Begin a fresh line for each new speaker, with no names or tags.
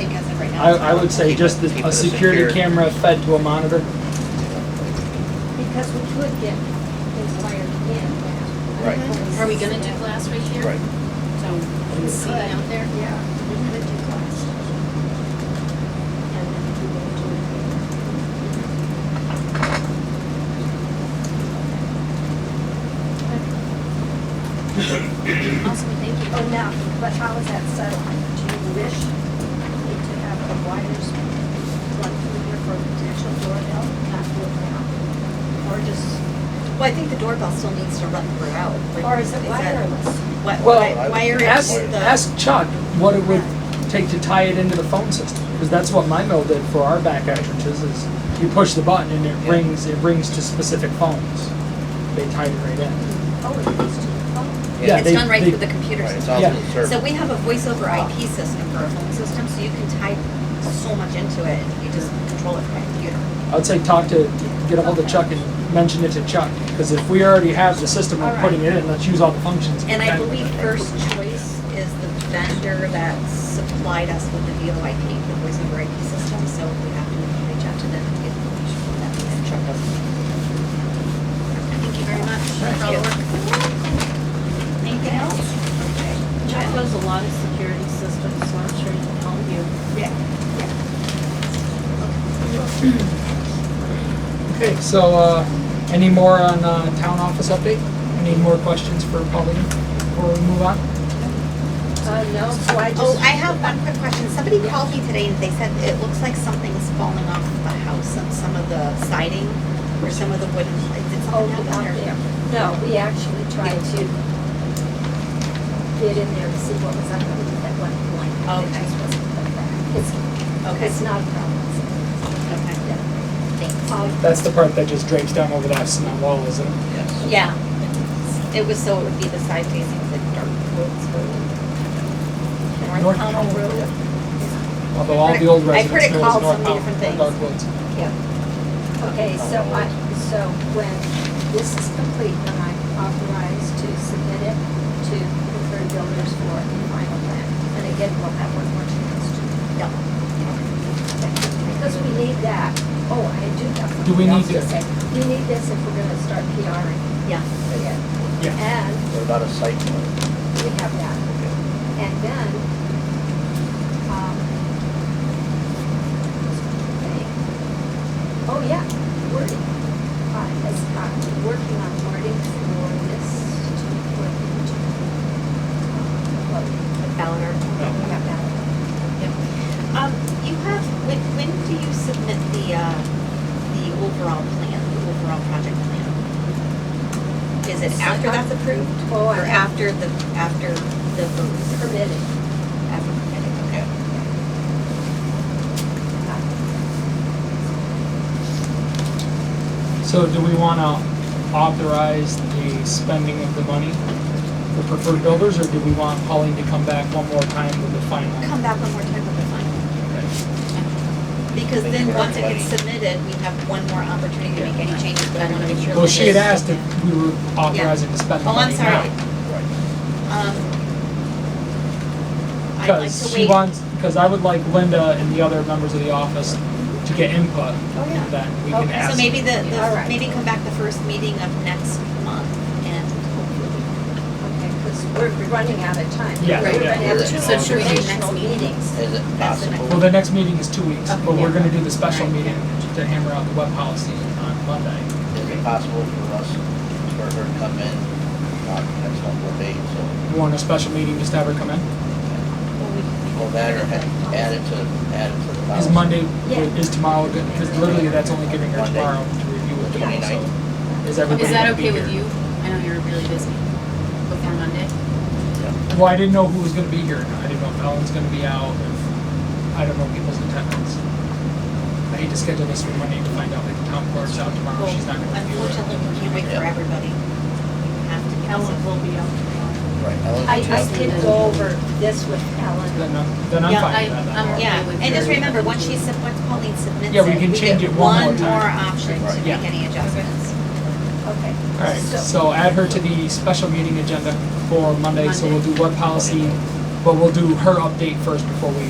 I, I would say
Keep it-
just the-
keep it
a security
secure.
camera fed to a monitor.
Because we could get inquired in now.
Right.
Mm-hmm. Are we gonna do glass right here?
Right.
So, we can see
Right.
out there?
Yeah, we could do glass. And then we would do it
Awesome, thank
here.
you.
Oh, now, but how is that settled? Do you wish me to have the wires run through here for a potential doorbell, not do it now? Or just,
Well, I think the doorbell still needs to run throughout. but
or is it
that-
wireless?
What,
Well,
wi- wire is
ask,
the,
ask Chuck what it would take to tie it into the phone system, because that's what my mill did for our back entrances, is you push the button and it rings, it rings to specific phones. They tied it right in.
Oh, it goes to the phone.
yeah,
it's
they-
done right
they-
through the computer
Right, it's
system.
all
Yeah.
through the server.
So we have a voice over IP system for our phone system, so you can type so much into it, you just control it from a computer.
I would say talk to, get ahold of
Okay.
Chuck and mention it to Chuck, because if we already have the system, we're
Alright.
putting it in, let's use all the functions.
And I
Okay.
believe First Choice is the vendor that supplied us with the VoIP, the voice over IP system, so we have to reach out to them and get information from them. and check those.
Thank you very much for all the work.
Anything else?
Chuck does a lot of security systems, so I'm sure he can help you.
Yeah.
Okay, so, uh, any more on, uh, town office update? Any more questions for Pauline before we move on?
Uh, no, so I just.
Oh, I have one quick question. Somebody called me today and they said it looks like something's falling off the house and some of the siding or some of the wooden, did
Oh,
something
out
happen
there.
or?
No, we actually tried to get in there to see what was underneath at one point.
Oh,
It
okay.
just wasn't put back. It's,
Okay,
it's not a problem.
okay,
Yeah.
thanks.
Um,
That's the part that just drapes down over that cement wall, isn't it?
Yes.
Yeah, it was so it would be the side facing the dark woods road.
North
North Pownell Road.
Although all the old
I've heard
residents
it
know it's
called so
North
many different
Pownell,
things.
Dark Woods.
Okay, so I, so when this is complete, then I'm authorized to submit it to preferred builders for the final plan. And again, we'll have one more chance to.
Yep.
Because we need that. Oh, I do have something
Do we
else
need
to
to-
say. We need this if we're gonna start PRing.
Yeah.
Yeah.
And
What about a site plan?
we have that. And then, um, oh yeah, wording. Uh, has, uh, working on wording for this to put into, um, what we-
The ballot article.
we have now.
Yep. Um, you have, when, when do you submit the, uh, the overall plan, the overall project plan? Is it after that's approved?
Oh, I
Or
have
after the, after the vote,
permitted.
after permitting, okay.
So do we want to authorize the spending of the money for preferred builders, or do we want Pauline to come back one more time with the final?
Come back one more time with the final. Because then, once it gets submitted, we have one more opportunity to make any changes, but I wanna make sure.
Well,
that
she had
it's-
asked if we were authorizing to spend the
Oh, I'm
money now.
sorry.
Right.
Um, I'd like to
Because she
wait.
wants, because I would like Linda and the other members of the office to get
Oh,
input,
yeah.
and then we can
Okay.
ask.
So maybe the,
All
the,
right.
maybe come back the first meeting of next month and
Okay, because we're running out of time.
Yeah,
We're
yeah.
gonna have two
So
should we do next
informational
meeting?
meetings.
Is it
That's the
possible?
Well, the next meeting is two weeks,
Okay,
but
yeah.
we're going to do the special
Alright,
meeting to hammer out the web policy on Monday.
Is it possible for us, for her to come in, not next couple of days, so,
You want a special meeting, just to have her come in?
well, that or add add it to, add it to the
Is
policy?
Monday,
Yeah.
is tomorrow good? Because literally, that's only giving her
Monday.
tomorrow to review it tomorrow, so.
29th.
Is everybody
Is that
gonna be
okay with
here?
you? I know you're really busy before Monday.
Well, I didn't know who was gonna be here. I didn't know if Ellen's gonna be out, if, I don't know people's attendance. I hate to schedule this for Monday to find out that the town clerk's out tomorrow,
Well,
she's not gonna review
Unfortunately,
it.
we can't wait for
Yeah.
everybody. We have to get
Ellen
this-
will be out tomorrow.
Right, Ellen,
I,
you
I
have-
did go over this with Ellen.
Then I'm, then I'm
Yeah,
fine
I-
with
I'm-
that.
Yeah,
Okay, with
and just
your-
remember, once she, sub- once Pauline submits it.
Yeah, we can change
get
it one more time.
One more option to
Right.
make
Yeah.
any adjustments.
Okay.
Alright, so add her to the special meeting agenda for Monday, so we'll do web policy, but we'll do her update first before we